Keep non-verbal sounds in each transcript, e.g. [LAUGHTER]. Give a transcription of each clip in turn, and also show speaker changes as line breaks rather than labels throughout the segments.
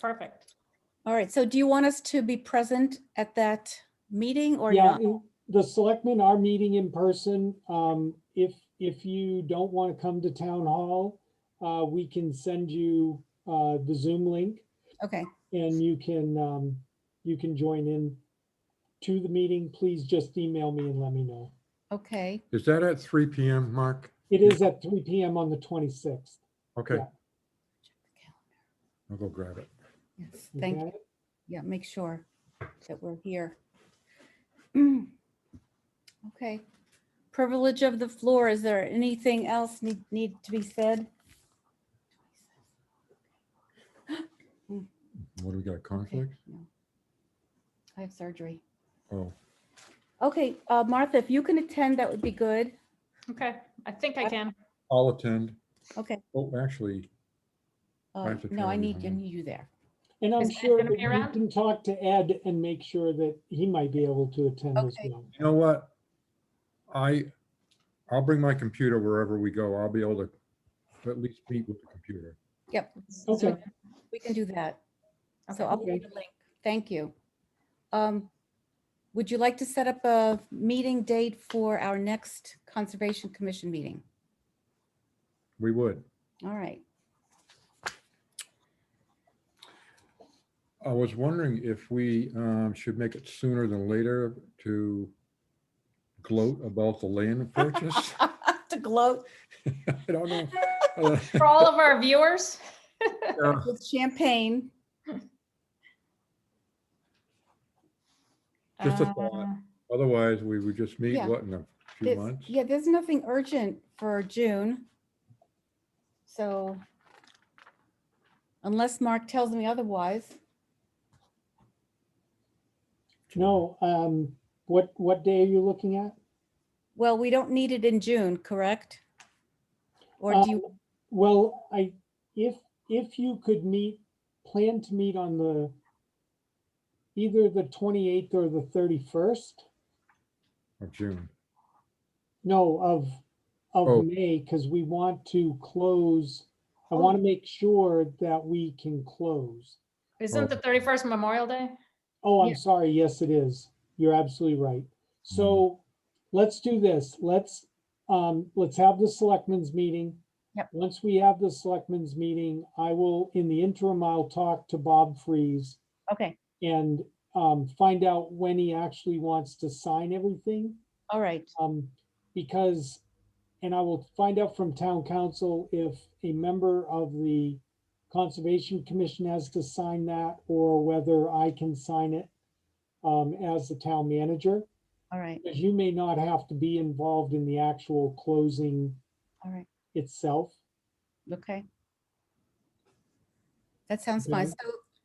Perfect.
All right, so do you want us to be present at that meeting or
Yeah,
not?
it- the selectmen are meeting in person. Um, if, if you don't want to come to town hall, uh, we can send you, uh, the Zoom link
Okay,
and you can, um, you can join in to the meeting. Please just email me and let me know.
okay,
Is that at three PM, Mark?
It is at three PM on the twenty-sixth.
Okay,
Yeah.
I'll go grab it.
yes, thank you. Yeah, make sure that we're here. [CLEARS THROAT] Okay, privilege of the floor. Is there anything else need, need to be said?
What do we got,
Okay,
conflict?
no. I have surgery.
Oh,
Okay, uh, Martha, if you can attend, that would be good.
Okay, I think I can.
I'll attend.
Okay.
Oh, actually, I
uh,
have to
No, I
travel
need, I
tomorrow.
need you there.
And I'm
Is Ed
sure
gonna
that
be
you
around?
can talk to Ed and make sure that he might be able to attend as
Okay.
well.
you know what? I, I'll bring my computer wherever we go. I'll be able to at least meet with the computer.
Okay.
We can do that.
Okay.
So I'll
Okay.
leave a link. Thank you. Um, Would you like to set up a meeting date for our next Conservation Commission meeting?
We would.
All right. [LAUGHS]
I was wondering if we um, should make it sooner than later to gloat about the
[LAUGHS]
land purchase. [LAUGHS]
To gloat
I don't know. I
[LAUGHS]
don't-
For all of our viewers,
Yeah,
with champagne.
Just a thought.
uh,
Otherwise, we would just meet,
Yeah.
what, in a few
There's-
months?
Yeah, there's nothing urgent for June. So unless Mark tells me otherwise,
No, um, what, what day are you looking at?
well, we don't need it in June, correct? Or do you,
Um, Well, I, if, if you could meet, plan to meet on the either the twenty-eighth or the thirty-first,
Of June.
no, of,
Oh.
of May, because we want to close. I
Oh.
want to make sure that we can close.
Isn't the 31st Memorial Day?
Oh,
Yeah.
I'm sorry. Yes, it is. You're absolutely right. So let's do this. Let's, um, let's have the selectmen's meeting.
Yep.
Once we have the selectmen's meeting, I will, in the interim, I'll talk to Bob Freeze
okay,
and, um, find out when he actually wants to sign everything.
all right,
Um, because, and I will find out from town council if a member of the Conservation Commission has to sign that or whether I can sign it um, as the town manager,
all right,
because you may not have to be involved in the actual closing
all right.
itself
Okay. That sounds fine.
Okay.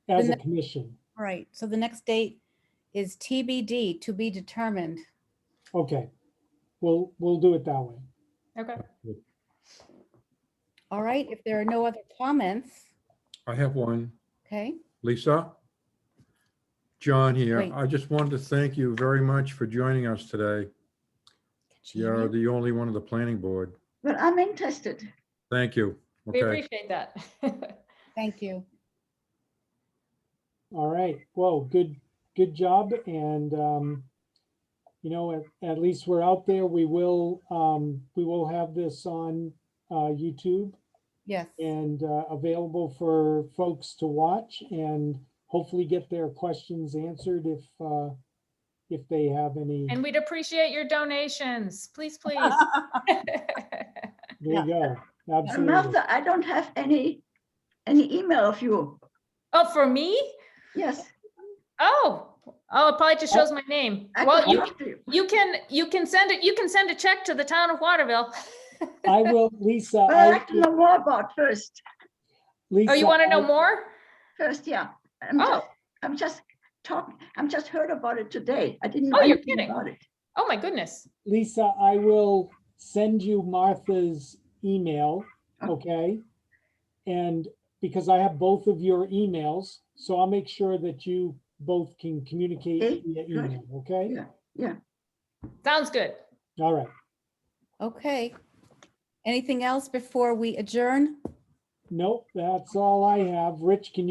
So,
as a
Then-
commission.
all right, so the next date is TBD to be determined.
Okay, we'll, we'll do it that way.
Okay.
All right, if there are no other comments,
I have one.
okay?
Lisa? John here.
Wait.
I just wanted to thank you very much for joining us today.
Can she hear
You're
me?
the only one of the planning board.
But I'm interested.
Thank you.
We
Okay,
appreciate that. [LAUGHS]
Thank you.
All right, well, good, good job, and, um, you know, at, at least we're out there, we will, um, we will have this on, uh, YouTube
Yes,
and, uh, available for folks to watch and hopefully get their questions answered if, uh, if they have any.
And we'd appreciate your donations. Please, please. [LAUGHS]
There you go,
And
absolutely.
Martha, I don't have any, any email of you.
Oh, for me?
Yes.
Oh, oh, it probably just shows my name.
I
Well,
could
you,
talk to you.
you can, you can send it, you can send a check to the town of Waterville.
I will, Lisa,
But I'd
I,
like to know more about first,
[LAUGHS]
Lisa.
Oh, you want to know
I-
more?
first, yeah. I'm
Oh.
just- I'm just talking, I'm just heard about it today. I didn't know
Oh, you're
anything
kidding.
about it.
Oh, my goodness.
Lisa, I will send you Martha's email,
Oh.
okay? And because I have both of your emails, so I'll make sure that you both can
Okay,
communicate via
good.
email, okay?
Yeah. Yeah.
Sounds good.
All right,
okay. Anything else before we adjourn?
nope, that's all I have. Rich, can you?